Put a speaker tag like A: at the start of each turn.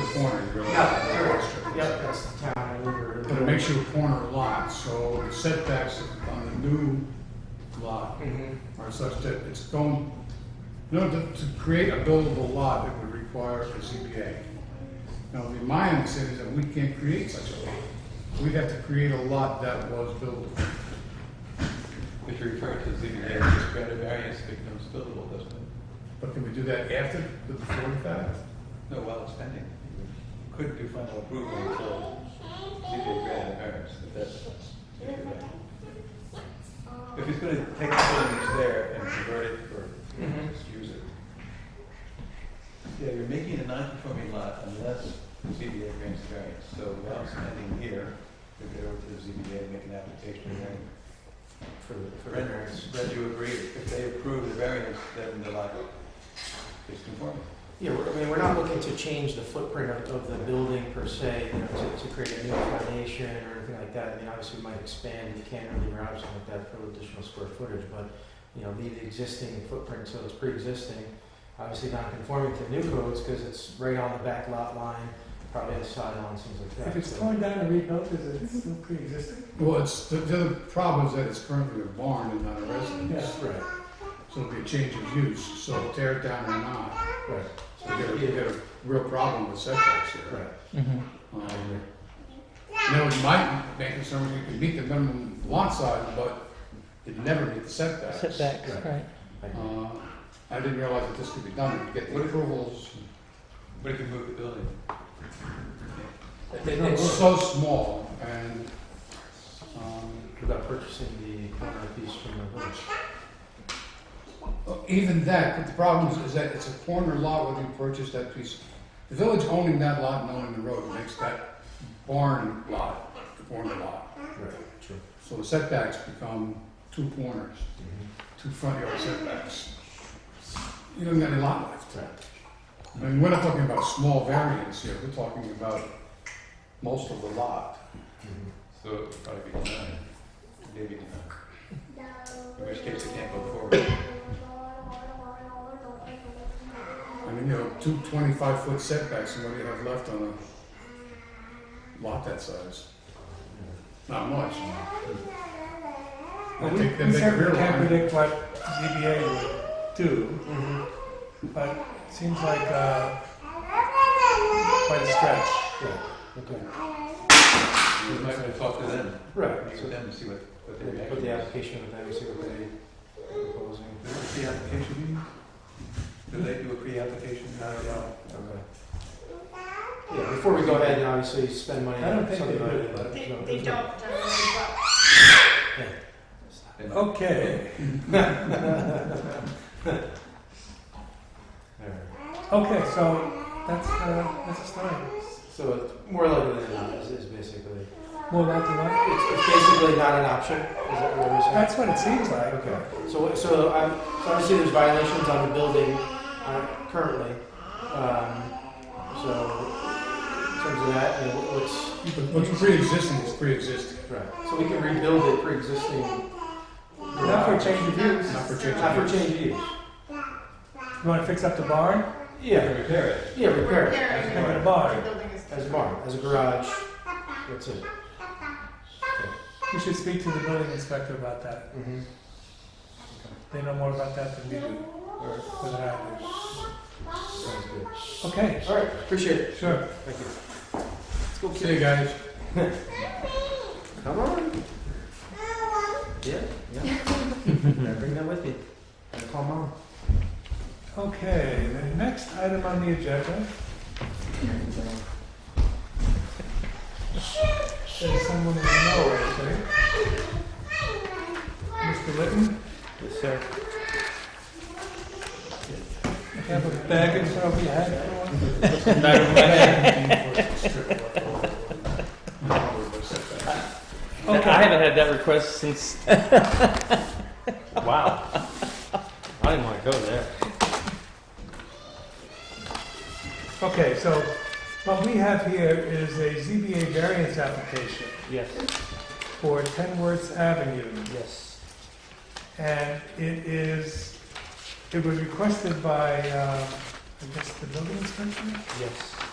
A: corner, really.
B: Yeah, there was, yep, that's the town over.
A: But it makes you a corner lot, so setbacks on the new lot
B: Mhm.
A: are such that it's going, you know, to, to create a buildable lot, it would require a ZBA. Now, the my understanding is that we can't create such a lot. We'd have to create a lot that was buildable.
C: If you refer to ZBA, it's granted variance, it becomes buildable, doesn't it?
A: But can we do that after, the before the fact?
C: No, while it's pending. Couldn't do final approval until ZBA granted variance, if that's. if you're right. If he's gonna take the building that's there and convert it or
B: Mhm.
C: just use it. Yeah, you're making a non-conforming lot unless ZBA grants variance, so while it's pending here, you go over to the ZBA, and make an application, and then
B: For, for
C: Renderings, that you agree, if they approve the variance, then the lot is conforming.
B: Yeah, we're- I mean, we're not looking to change the footprint of, of the building per se, you know, to, to create a new foundation or anything like that. I mean, obviously, we might expand the cantilever or something like that for additional square footage, but, you know, leave the existing footprint so it's pre-existing. Obviously, not conforming to new codes because it's right on the back lot line, probably on the sideline, things like that.
D: If it's
B: So-
D: torn down and rebuilt, is it still pre-existing?
A: Well, it's, the, the other problem is that it's currently a barn and not a residence,
B: Yes, right,
A: so it'd be a change of use, so tear it down or not.
B: right,
A: So you get a, you get a real problem with setbacks here.
B: right.
A: Um, You know, it might make it so you can meet the minimum lot size, but it never meet the setbacks.
E: setbacks, right.
A: Uh, I didn't realize that this could be done, You get the approvals,
C: But if you move the building,
A: it's
B: It- it's-
A: so small, and, um,
B: Without purchasing the corner piece from the village.
A: even that, but the problem is- is that it's a corner lot where you purchase that piece. The village owning that lot and owning the road makes that barn lot, the corner lot.
B: Right, true.
A: So the setbacks become two corners. two front yard setbacks. You don't get any lot left.
B: Right.
A: I mean, we're not talking about small variance here, we're talking about most of the lot.
C: so it would probably be denied, maybe denied. In which case it can't go forward.
A: I mean, you know, two 25 foot setbacks, and what do you have left on a lot that size? Not much. I
D: We
A: think they
D: we
A: make a rear
D: certainly can't
A: line.
D: predict what ZBA would do, but it seems like uh, quite a stretch.
B: Okay.
C: You might want to talk to them,
B: Right.
C: meet
B: So
C: with them and see what, what they react.
B: Put the application with them, see what they proposing.
C: Is there a pre-application meeting? Do they do a pre-application?
B: Not at all. Okay. Yeah, before we go ahead and obviously spend money
D: I don't
B: on
D: think
B: something
D: they
B: like
D: do.
B: that. but
F: They,
B: no,
F: they
B: there's no-
F: don't, um, but
C: They might.
D: Okay,
B: Alright.
D: okay, so that's, uh, that's a story.
B: So it's more likely than not is, is basically,
D: More about the one?
B: it's, it's basically not an option, is that what you're saying?
D: That's what it seems like.
B: Okay, so, what- so I'm, so obviously there's violations on the building, uh, currently, um, so in terms of that, you know, what- what's,
A: But What's pre-existing is pre-existing,
B: Right, so we can rebuild it pre-existing.
D: Not for change of use.
A: not for change
B: Not for
A: of use.
B: change of use.
D: You want to fix up the barn?
C: You
B: Yeah,
C: can repair it.
B: yeah,
F: we're
B: repair it
F: repairing
D: Repair
F: it.
D: the barn.
F: The building is.
B: as a barn, as a garage, that's it.
D: You should speak to the building inspector about that.
B: Mhm.
D: They know more about that than we do. or than I
B: Sounds good.
D: do. Okay,
B: All right, appreciate it,
D: sure.
B: thank you.
A: See you guys.
B: Come on. Yeah, yeah. Better Bring that with me. Gotta Call mom.
D: Okay, the next item on the agenda. There's someone we know, actually. Mr. Litton,
E: Yes, sir.
D: you have a bag in front of your head for one?
E: I haven't had that request since. wow. I didn't want to go there.
D: Okay, so what we have here is a ZBA variance application
E: Yes,
D: for Ten Worths Avenue.
E: yes.
D: And it is, um, it was requested by, uh, I guess, the building inspector?
E: Yes.